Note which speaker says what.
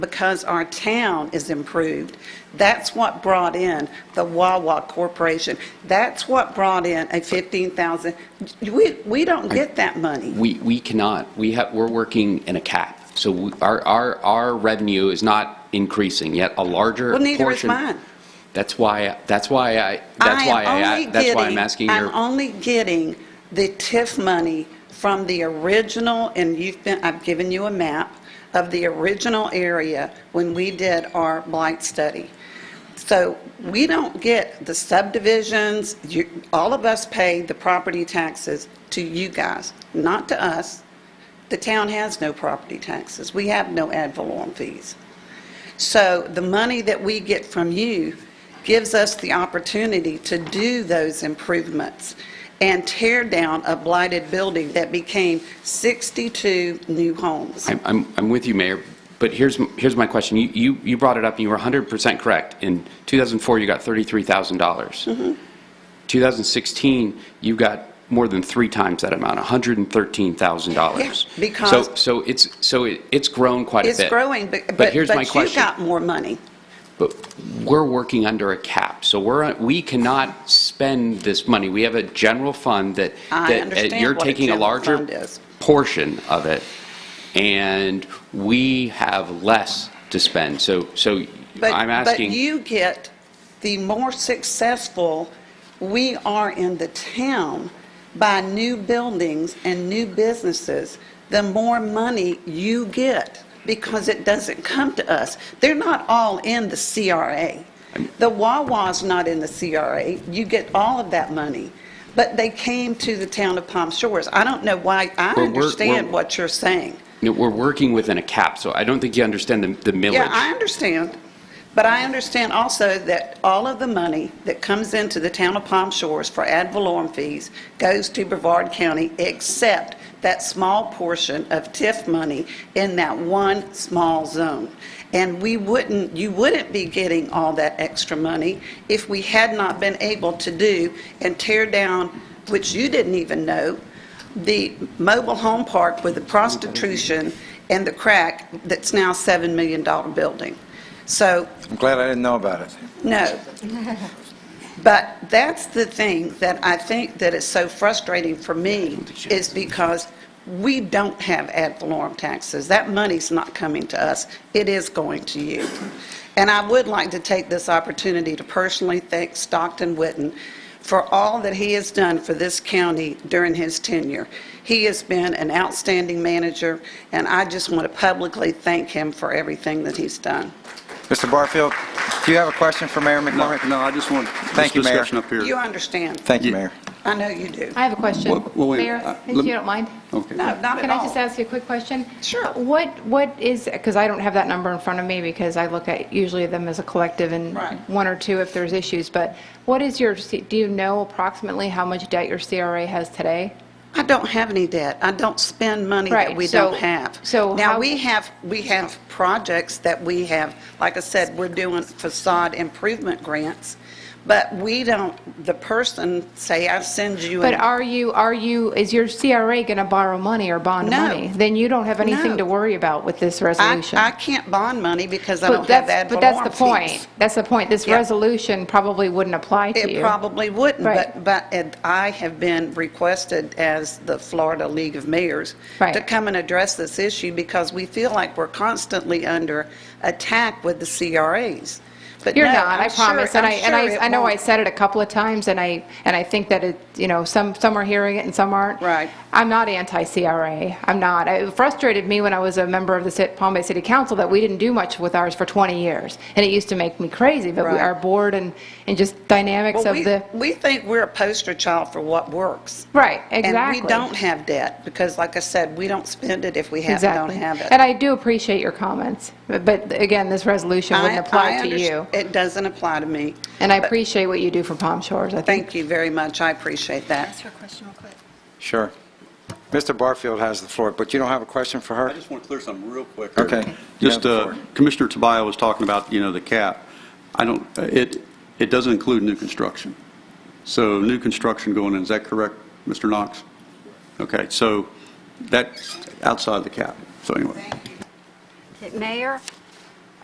Speaker 1: because our town is improved. That's what brought in the Wawa Corporation. That's what brought in a 15,000. We, we don't get that money.
Speaker 2: We, we cannot, we have, we're working in a cap. So we- our, our, our revenue is not increasing, yet a larger
Speaker 1: Well,
Speaker 2: portion.
Speaker 1: neither is mine.
Speaker 2: That's why, that's why I, that's
Speaker 1: am
Speaker 2: why I,
Speaker 1: only
Speaker 2: that's why I'm
Speaker 1: getting-
Speaker 2: asking
Speaker 1: I'm
Speaker 2: your,
Speaker 1: only getting the TIF money from the original, and you've been, I've given you a map of the original area when we did our blight study. So we don't get the subdivisions, you, all of us pay the property taxes to you guys, not to us. The town has no property taxes. We have no ad valorem fees. So the money that we get from you gives us the opportunity to do those improvements and tear down a blighted building that became 62 new homes.
Speaker 2: I'm, I'm, I'm with you, Mayor, but here's, m- here's my question. You, you, you brought it up and you were 100% correct. In 2004, you got $33,000. dollars
Speaker 1: Mm-hmm.
Speaker 2: 2016, you got more than three times that amount, $113,000.
Speaker 1: Yeah, because-
Speaker 2: So, so it's, so it- it's grown quite a bit.
Speaker 1: It's growing, but, but
Speaker 2: here's my
Speaker 1: but you
Speaker 2: question.
Speaker 1: got more money.
Speaker 2: But we're working under a cap, so we're, we cannot spend this money. We have a general fund that.
Speaker 1: I
Speaker 2: that, uh,
Speaker 1: understand
Speaker 2: You're
Speaker 1: what a
Speaker 2: taking a
Speaker 1: general
Speaker 2: larger
Speaker 1: fund is.
Speaker 2: portion of it, and we have less to spend. So, so
Speaker 1: But-
Speaker 2: I'm asking.
Speaker 1: But you get, the more successful we are in the town by new buildings and new businesses, the more money you get, because it doesn't come to us. They're not all in the CRA. The Wawa's not in the CRA. You get all of that money, but they came to the town of Palm Shores. I don't know why, I
Speaker 2: But we're- we're-
Speaker 1: understand what you're saying.
Speaker 2: you know, We're working within a cap, so I don't think you understand the the millage.
Speaker 1: Yeah, I understand, but I understand also that all of the money that comes into the town of Palm Shores for ad valorem fees goes to Brevard County, except that small portion of TIF money in that one small zone. And we wouldn't, you wouldn't be getting all that extra money if we had not been able to do and tear down, which you didn't even know, the mobile home park with the prostitution and the crack that's now $7 million building. So,
Speaker 3: I'm glad I didn't know about it.
Speaker 1: no. But that's the thing that I think that is so frustrating for me, is because we don't have ad valorem taxes. That money's not coming to us, it is going to you. And I would like to take this opportunity to personally thank Stockton Witten for all that he has done for this county during his tenure. He has been an outstanding manager, and I just want to publicly thank him for everything that he's done.
Speaker 3: Mr. Barfield, do you have a question for Mayor
Speaker 4: No,
Speaker 3: McCormick?
Speaker 4: no, I just want this
Speaker 3: Thank you, Mayor.
Speaker 4: discussion up here.
Speaker 1: You understand?
Speaker 3: Thank you, Mayor.
Speaker 1: I know you do.
Speaker 5: I have a question.
Speaker 4: Well, well, wait, uh,
Speaker 5: Mayor, if
Speaker 4: lem- Oh.
Speaker 5: you don't mind?
Speaker 4: Okay.
Speaker 1: No, not at
Speaker 5: Can I
Speaker 1: all.
Speaker 5: just ask you a quick question?
Speaker 1: Sure.
Speaker 5: What, what is, because I don't have that number in front of me because I look at usually them as a collective and
Speaker 1: Right.
Speaker 5: one or two if there's issues, but what is your, C- do you know approximately how much debt your CRA has today?
Speaker 1: I don't have any debt. I don't spend money that
Speaker 5: Right,
Speaker 1: we
Speaker 5: so-
Speaker 1: don't have.
Speaker 5: so
Speaker 1: Now,
Speaker 5: how-
Speaker 1: we have, we have projects that we have, like I said, we're doing facade improvement grants, but we don't, the person, say, I send you.
Speaker 5: But
Speaker 1: an-
Speaker 5: are you, are you, is your CRA going to borrow money or bond
Speaker 1: No.
Speaker 5: money? Then you don't have
Speaker 1: No.
Speaker 5: anything to worry about with this
Speaker 1: I,
Speaker 5: resolution.
Speaker 1: I can't bond money because I
Speaker 5: But
Speaker 1: don't have
Speaker 5: that's-
Speaker 1: ad
Speaker 5: But that's the
Speaker 1: valorem fees.
Speaker 5: point. That's the point. This
Speaker 1: Yeah.
Speaker 5: resolution probably wouldn't apply to you.
Speaker 1: It probably wouldn't, but,
Speaker 5: Right.
Speaker 1: but it- I have been requested as the Florida League of Mayors to
Speaker 5: Right.
Speaker 1: come and address this issue because we feel like we're constantly under attack with the CRAs. But
Speaker 5: You're
Speaker 1: no,
Speaker 5: not,
Speaker 1: I'm
Speaker 5: I
Speaker 1: sure-
Speaker 5: promise. And I,
Speaker 1: I'm
Speaker 5: and
Speaker 1: sure it
Speaker 5: I, I know I
Speaker 1: won't.
Speaker 5: said it a couple of times, and I, and I think that it, you know, some, some are hearing it and some aren't.
Speaker 1: Right.
Speaker 5: I'm not anti-CRA. I'm not. It frustrated me when I was a member of the Ci- Palm Bay City Council that we didn't do much with ours for 20 years. And it used to make me crazy, but we-
Speaker 1: Right.
Speaker 5: our board and, and just dynamics
Speaker 1: Well,
Speaker 5: of
Speaker 1: we-
Speaker 5: the,
Speaker 1: We think we're a poster child for what works.
Speaker 5: right, exactly.
Speaker 1: And we don't have debt because, like I said, we don't spend it if we have, don't
Speaker 5: Exactly.
Speaker 1: have it.
Speaker 5: And I do appreciate your comments, but- but again, this resolution
Speaker 1: I-
Speaker 5: wouldn't apply
Speaker 1: I
Speaker 5: to
Speaker 1: underst-
Speaker 5: you.
Speaker 1: It doesn't apply to me.
Speaker 5: And I appreciate what you do for Palm Shores. I think
Speaker 1: Thank you very much. I appreciate that.
Speaker 6: Ask her a question real quick.
Speaker 3: Sure. Mr. Barfield has the floor, but you don't have a question for
Speaker 4: I
Speaker 3: her?
Speaker 4: just want to clear something real quick.
Speaker 3: Okay.
Speaker 4: Just,
Speaker 3: You have
Speaker 4: uh,
Speaker 3: the floor.
Speaker 4: Commissioner Tobias was talking about, you know, the cap. I don't, uh, it, it doesn't include new construction. So new construction going in, is that correct, Mr. Knox? Okay, so that's outside the cap, so anyway.
Speaker 6: Mayor,